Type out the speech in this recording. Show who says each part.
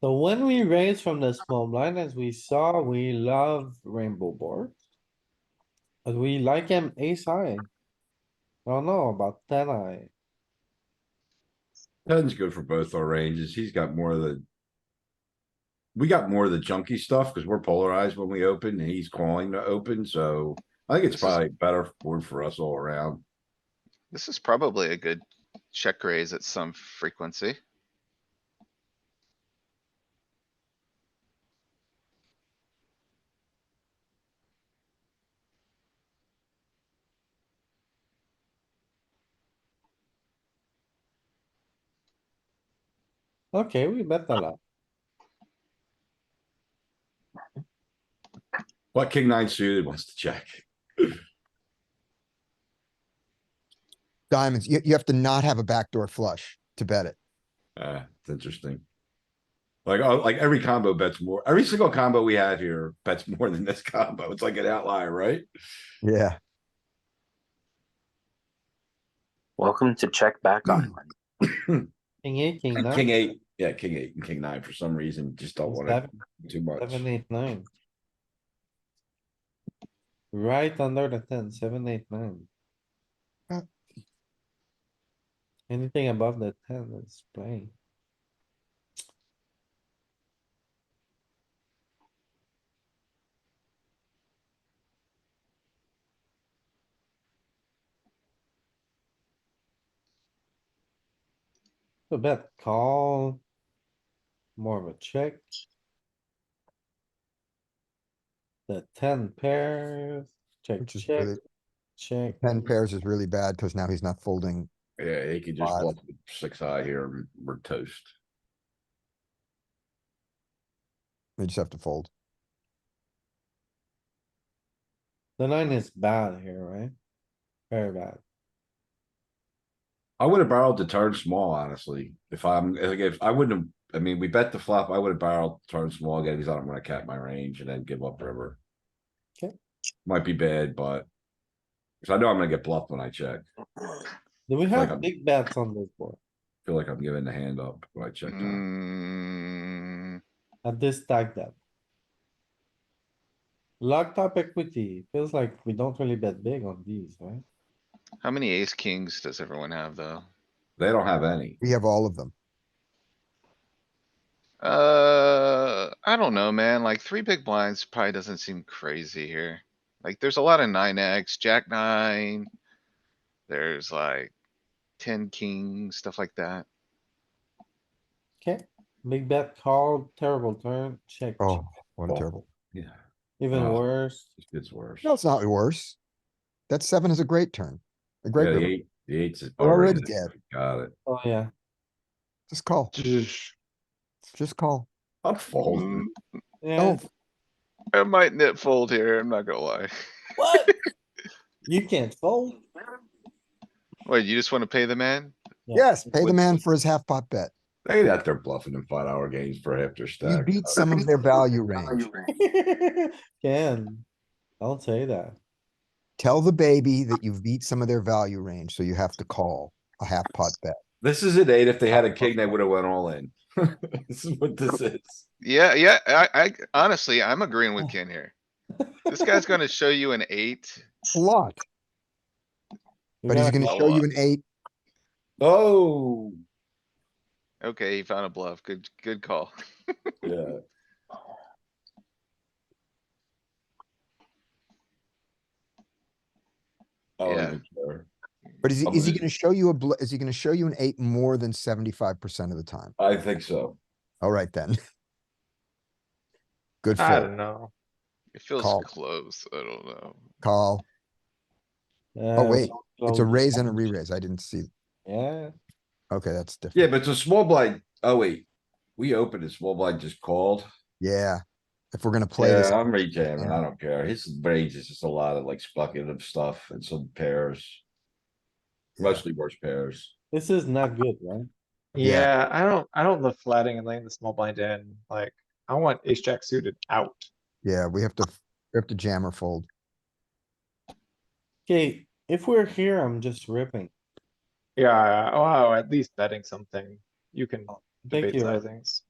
Speaker 1: So when we raise from the small blind, as we saw, we love rainbow board. But we like him ace high. I don't know about ten high.
Speaker 2: Ten's good for both our ranges. He's got more of the. We got more of the junky stuff because we're polarized when we open and he's calling to open, so I think it's
Speaker 3: This is-
Speaker 2: probably better board for us all around.
Speaker 3: This is probably a good check raise at some frequency.
Speaker 1: Okay, we bet a lot.
Speaker 2: But king nine suited wants to check.
Speaker 4: Diamonds, you, you have to not have a backdoor flush to bet it.
Speaker 2: Uh, it's interesting. Like, oh, like every combo bets more, every single combo we have here bets more than this combo. It's like an outlier, right?
Speaker 4: Yeah.
Speaker 5: Welcome to check back on.
Speaker 1: King eight, king nine.
Speaker 2: King eight, yeah, king eight and king nine for some reason just don't want
Speaker 1: Seven,
Speaker 2: it too much.
Speaker 1: seven, eight, nine. Right under the ten, seven, eight, nine.
Speaker 4: Uh.
Speaker 1: Anything above the ten is playing. A bet call. More of a check. The ten pairs, check,
Speaker 4: Which is
Speaker 1: check,
Speaker 4: really-
Speaker 1: check.
Speaker 4: Ten pairs is really bad because now he's not folding.
Speaker 2: Yeah, he could just
Speaker 4: Five.
Speaker 2: bluff with six high here, and we're toast.
Speaker 4: We just have to fold.
Speaker 1: The nine is bad here, right? Very bad.
Speaker 2: I would have barreled the turn small, honestly. If I'm, like, if I wouldn't have, I mean, we bet the flop, I would have barreled turn small again, because I don't want to cap my range and then give up river.
Speaker 1: Okay.
Speaker 2: Might be bad, but. Cause I know I'm gonna get bluffed when I check.
Speaker 1: Do we
Speaker 2: Like
Speaker 1: have
Speaker 2: I'm-
Speaker 1: big bets on this board
Speaker 2: Feel like I'm giving the hand up when I check. now.
Speaker 3: Mm,
Speaker 1: at this stack depth? Locked up equity, feels like we don't really bet big on these, right?
Speaker 3: how many ace kings does everyone have though?
Speaker 2: They don't have any.
Speaker 4: We have all of them.
Speaker 3: Uh, I don't know, man. Like three big blinds probably doesn't seem crazy here. Like there's a lot of nine X, jack nine. There's like ten king, stuff like that.
Speaker 1: Okay, big bet called, terrible turn, check, check,
Speaker 4: Oh, what a
Speaker 2: Oh.
Speaker 4: terrible.
Speaker 2: Yeah,
Speaker 1: even
Speaker 2: uh,
Speaker 1: worse.
Speaker 2: it gets worse.
Speaker 4: No, it's not worse. That seven is a great turn. A
Speaker 2: Yeah,
Speaker 4: great
Speaker 2: the
Speaker 4: river.
Speaker 2: eight, the eight's. is
Speaker 4: We're already
Speaker 2: already-
Speaker 4: dead.
Speaker 2: Got it.
Speaker 1: Oh, yeah.
Speaker 4: Just call. Just call.
Speaker 2: I'm folding.
Speaker 3: Mm,
Speaker 1: Yeah,
Speaker 4: Oh,
Speaker 1: it's-
Speaker 3: I might knit fold here, I'm not gonna lie.
Speaker 1: what? You can't fold.
Speaker 3: Wait, you just wanna pay the man?
Speaker 4: yes, pay the
Speaker 3: Would-
Speaker 4: man for his half pot bet.
Speaker 2: They ain't out there bluffing in five hour games for half their
Speaker 4: You
Speaker 2: stack.
Speaker 4: beat some of their value range.
Speaker 1: Can, don't say that.
Speaker 4: Tell the baby that you've beat some of their value range, so you have to call a half pot bet.
Speaker 2: This is an eight. If they had a king, they would have went all in. This is what this is.
Speaker 3: Yeah, yeah, I, I honestly, I'm agreeing with Ken here. This guy's gonna show you an eight.
Speaker 4: A lot,
Speaker 1: You
Speaker 4: but he's
Speaker 1: gotta
Speaker 4: gonna
Speaker 3: call
Speaker 4: show
Speaker 3: up.
Speaker 4: you an eight.
Speaker 2: Oh,
Speaker 3: Okay, he found a bluff. Good, good call.
Speaker 2: yeah. Oh,
Speaker 3: Yeah.
Speaker 2: even better.
Speaker 4: But is he,
Speaker 2: I'm
Speaker 4: is he
Speaker 2: gonna-
Speaker 4: gonna show you a, bl- is he gonna show you an eight more than seventy-five percent of the time?
Speaker 2: I think so.
Speaker 4: Alright then. Good
Speaker 6: I
Speaker 4: fold,
Speaker 6: don't know.
Speaker 3: It feels
Speaker 4: Call.
Speaker 3: close. I don't know.
Speaker 4: call.
Speaker 1: Uh,
Speaker 4: Oh, wait,
Speaker 1: don't
Speaker 4: It's a
Speaker 1: fold.
Speaker 4: raise and a re-raise. I didn't see.
Speaker 1: Yeah,
Speaker 4: Okay, that's different.
Speaker 2: Yeah, but it's a small blind. Oh, wait. We opened a small blind just called.
Speaker 4: Yeah. If we're gonna play this,
Speaker 2: Yeah, I'm rejamming. I don't care. His range is just a lot of like speculative stuff and some pairs.
Speaker 4: Yeah.
Speaker 2: Mostly worse pairs.
Speaker 1: this is not good, right?
Speaker 4: Yeah.
Speaker 6: Yeah, I don't, I don't love flatting and laying the small blind in, like, I want ace jack suited out.
Speaker 4: yeah, we have to, we have to jam or fold.
Speaker 1: Okay, if we're here, I'm just ripping.
Speaker 6: Yeah, oh, at least betting something, you can
Speaker 1: Thank
Speaker 6: debate
Speaker 1: you.
Speaker 6: side things.